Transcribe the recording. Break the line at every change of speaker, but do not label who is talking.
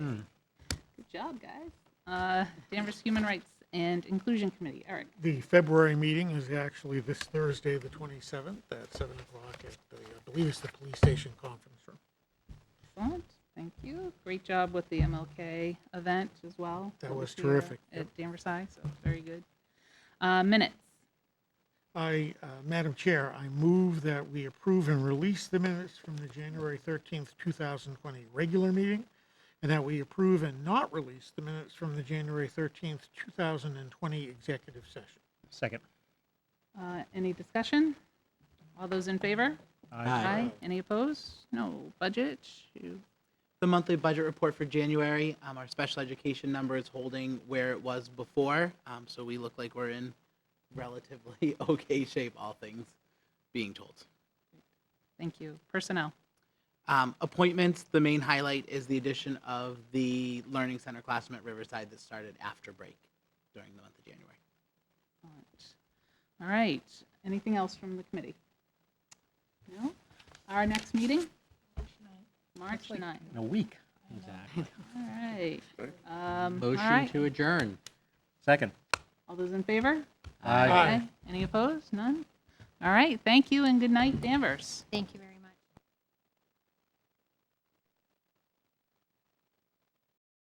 job, guys. Uh, Danvers Human Rights and Inclusion Committee, Eric.
The February meeting is actually this Thursday, the 27th, at 7 o'clock at the, I believe it's the police station conference room.
Excellent, thank you. Great job with the MLK event as well.
That
over
was
here
terrific, yep.
At Danvers High, so very good. Uh, Minutes,
I, uh, Madam Chair, I move that we approve and release the minutes from the January 13th, 2020 regular meeting, and that we approve and not release the minutes from the January 13th, 2020 executive session.
Second.
Uh, any discussion? All those in favor? Aye. Any opposed? No. Budget, you-
The monthly budget report for January, um, our special education number is holding where it was before, um, so we look like we're in relatively okay shape, all things being told.
thank you. Personnel,
Um, appointments, the main highlight is the addition of the Learning Center classroom at Riverside that started after break during the month of January.
Excellent. All right, anything else from the committee? No? Our next meeting? March 9th.
In a week. Exactly.
All right. Um, All
Motion
right,
to adjourn.
Second.
all those in favor?
Aye.
Any opposed? None? All right, thank you and good night, Danvers.
Thank you very